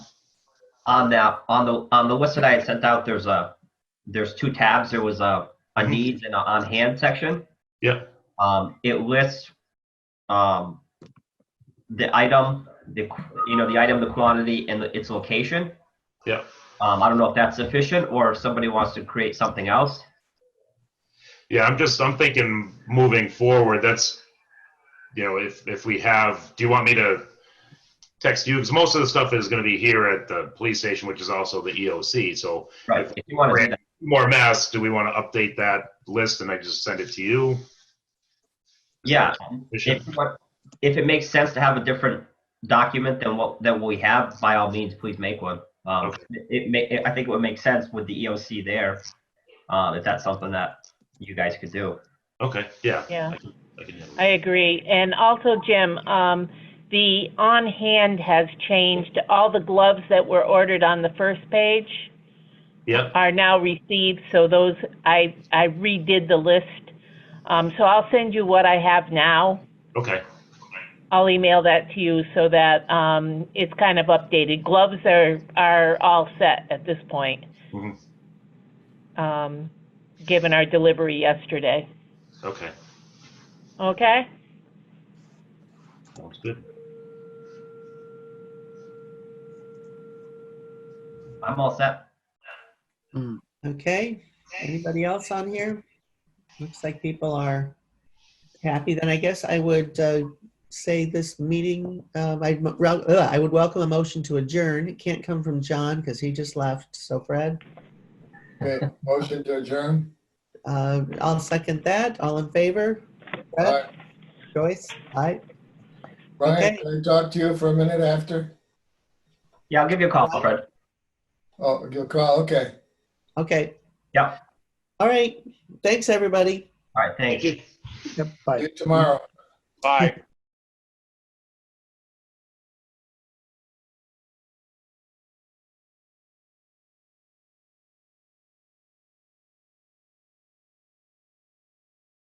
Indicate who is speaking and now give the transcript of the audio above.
Speaker 1: on that, on the, on the list that I had sent out, there's a, there's two tabs. There was a, a
Speaker 2: Mhm.
Speaker 1: needs and a on-hand section.
Speaker 2: Yep.
Speaker 1: Um, it lists, um, the item, the, qu- you know, the item, the quantity and the- its location.
Speaker 2: Yep.
Speaker 1: Um, I don't know if that's sufficient or if somebody wants to create something else.
Speaker 2: Yeah, I'm just, I'm thinking moving forward, that's, you know, if, if we have, do you want me to text you? Because most of the stuff is gonna be here at the police station, which is also the EOC, so
Speaker 1: Right, if you want to do that.
Speaker 2: more mass, do we want to update that list and I just send it to you?
Speaker 1: Yeah,
Speaker 2: Efficient?
Speaker 1: if, you want- if it makes sense to have a different document than what, than what we have, by all means, please make one. Um,
Speaker 2: Okay.
Speaker 1: it may, I think it would make sense with the EOC there, uh, if that's something that you guys could do.
Speaker 2: Okay, yeah.
Speaker 3: Yeah.
Speaker 2: I can- I can handle
Speaker 3: I agree. And also, Jim, um, the on-hand has changed. All the gloves that were ordered on the first page
Speaker 2: it. Yep,
Speaker 3: are now received, so those, I, I redid the list. Um, so I'll send you what I have now.
Speaker 2: okay,
Speaker 3: I'll email that to you so that, um, it's kind of updated. Gloves are, are all set at this point.
Speaker 2: Mhm.
Speaker 3: Um, given our delivery yesterday.
Speaker 2: okay,
Speaker 3: Okay?
Speaker 2: sounds good.
Speaker 1: I'm all set.
Speaker 4: Okay, anybody else on here? Looks like people are happy, then I guess I would uh, say this meeting, um, I'd mo- rel- ugh, I would welcome a motion to adjourn. It can't come from John because he just left, so Fred.
Speaker 5: Okay, motion to adjourn.
Speaker 4: uh, I'll second that, all in favor?
Speaker 5: All
Speaker 4: Fred,
Speaker 5: right,
Speaker 4: Joyce, aye?
Speaker 5: Brian,
Speaker 4: Okay.
Speaker 5: can I talk to you for a minute after?
Speaker 1: Yeah, I'll give you a call, Fred.
Speaker 5: Oh, you'll call, okay.
Speaker 4: Okay.
Speaker 1: Yeah.
Speaker 4: All right, thanks, everybody.
Speaker 1: All right, thanks.
Speaker 2: Thank you.
Speaker 4: Yep, bye.
Speaker 5: See you tomorrow.
Speaker 2: Bye.